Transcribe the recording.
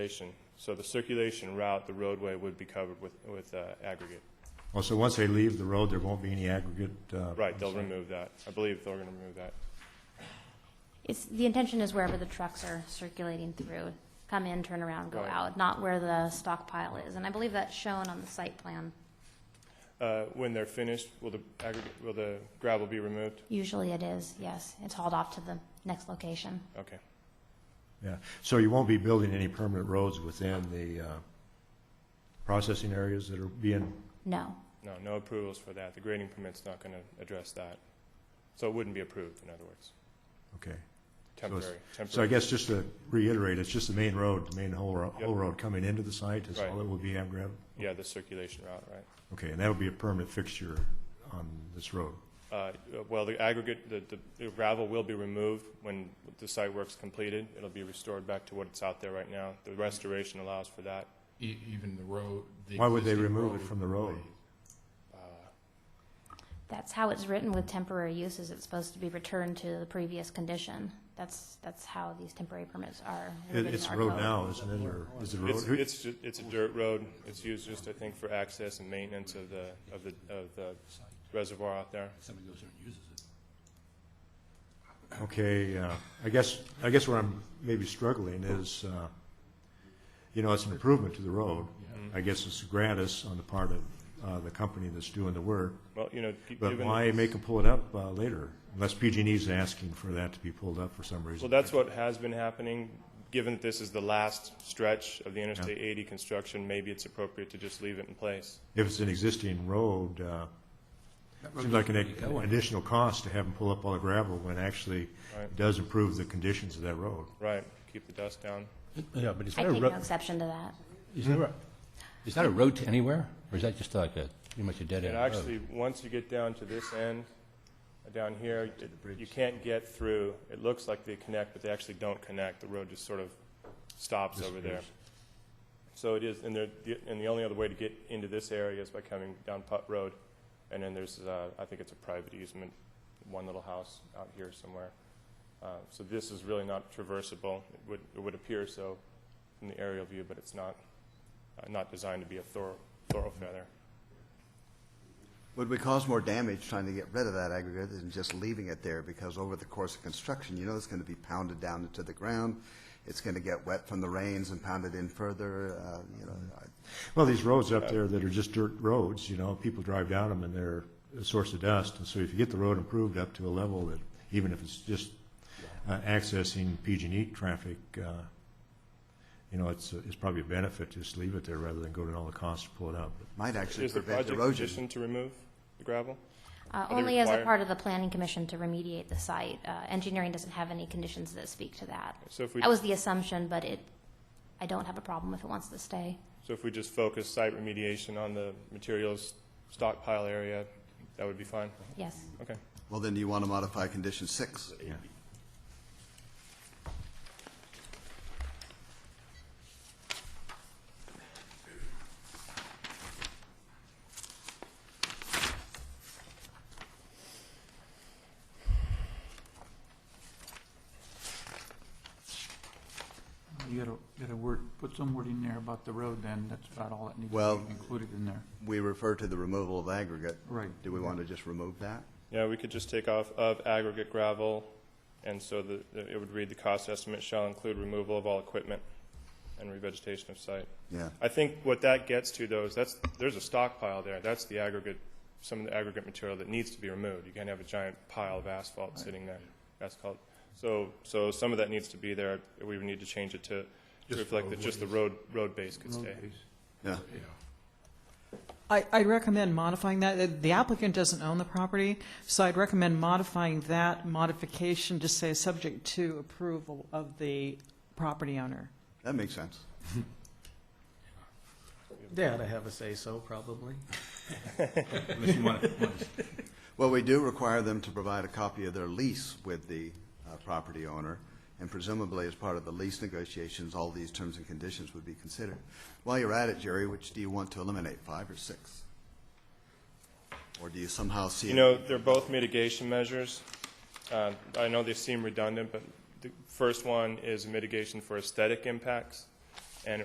Circulation. So the circulation route, the roadway would be covered with, with uh, aggregate. Well, so once they leave the road, there won't be any aggregate? uh, Right, they'll remove that. I believe they're going to remove that. It's, the intention is wherever the trucks are circulating through, come in, turn around, go Right. out, not where the stockpile is. And I believe that's shown on the site plan. Uh, When they're finished, will the aggregate, will the gravel be removed? Usually it is, yes. It's hauled off to the next location. Okay. Yeah, so you won't be building any permanent roads within the uh, processing areas that are being, No, No, no approvals for that. The grading permit's not going to address that. So it wouldn't be approved, in other words. okay. it's- Temporary, So I temporary. guess just to reiterate, it's just the main road, the main whole, ro- Yep. whole road coming into the site is Right. all that will be aggregate? Yeah, the circulation route, right. Okay, and that would be a permanent fixture on this road? Uh, Well, the aggregate, the- the the gravel will be removed when the site work's completed. It'll be restored back to what it's out there right now. The restoration allows for that. E- Even the road. the Why would they existing remove it from the road? that's how it's written with temporary uses. It's supposed to be returned to the previous condition. That's, that's how these temporary permits are. It- written It's in a our road code. now, isn't it, or is it a It's, road? Who- it's, ju- it's a dirt road. It's used just, I think, for access and maintenance of the, of the, of the reservoir out there. Somebody goes there and uses it. Okay, uh, I guess, I guess where I'm maybe struggling is, uh, you know, it's an improvement to the road. I guess it's gratis on the part of uh, the company that's doing the work, Well, you know, gi- but given, well, why make them pull it up uh, later? Unless PG&E's E asking for that to be pulled up for some reason. that's what has been happening. Given that this is the last stretch of the Interstate 80 construction, maybe it's appropriate to just leave it in place. If it's an existing road, uh, seems like an ad- additional cost to have them pull up all the gravel when actually Right. it does improve the conditions of that road. Right, keep the dust down. Yeah, but is I that a take no road, exception to that. is Hmm. that a, is that a road to anywhere? Or is that just like a, pretty much a dead And end road? actually, once you get down to this end, uh, down here, it- you can't get through. It looks like they connect, but they actually don't connect. The road just sort of stops over there. So it is, and there, the- and the only other way to get into this area is by coming down Putt Road. And then there's, uh, I think it's a private easement, one little house out here somewhere. Uh, So this is really not traversable. It would, it would appear so from the aerial view, but it's not, uh, not designed to be a thor- thoroughfare there. Would we cause more damage trying to get rid of that aggregate than just leaving it there? Because over the course of construction, you know it's going to be pounded down into the ground. It's going to get wet from the rains and pounded in further, uh, you know. I- Well, these roads up there that are just dirt roads, you know, people drive down them and they're a source of dust. And so if you get the road improved up to a level that, even if it's just uh, accessing PG&E traffic, uh, you know, it's, uh, it's probably a benefit to just leave it there rather than go to all the costs to pull it up. Might actually Is the prevent project erosion. conditioned to remove the gravel? Uh, they Only as a required? part of the planning commission to remediate the site. Uh, Engineering doesn't have any conditions that speak to that. So if we, That was the assumption, but it, I don't have a problem if it wants to stay. so if we just focus site remediation on the materials stockpile area, that would be fine? Yes. Okay. Well, then you want to modify condition six. You gotta, gotta word, put some word in there about the road then, that's about all that needs Well- to be included in there. We refer to the removal of aggregate. Right. Do we want to just remove that? Yeah, we could just take off of aggregate gravel, and so the, it would read the cost estimate shall include removal of all equipment and revegetation of site. Yeah. I think what that gets to though is that's, there's a stockpile there. That's the aggregate, some of the aggregate material that needs to be removed. You can't have a giant pile of asphalt sitting there. Asphalt. So, so some of that needs to be there. We would need to change it to to reflect that just the road, road base could stay. Roadways. Yeah. I, I'd recommend modifying that. The applicant doesn't own the property, so I'd recommend modifying that modification to say subject to approval of the property owner. That makes sense. They ought to have a say-so, probably. Unless you want, want to Well, we do require them to provide a copy of their lease with the uh, property owner, and presumably as part of the lease negotiations, all these terms and conditions would be considered. While you're at it, Jerry, which do you want to eliminate, five or six? Or do you somehow see? You it- know, they're both mitigation measures. Uh, I know they seem redundant, but the first one is mitigation for aesthetic impacts,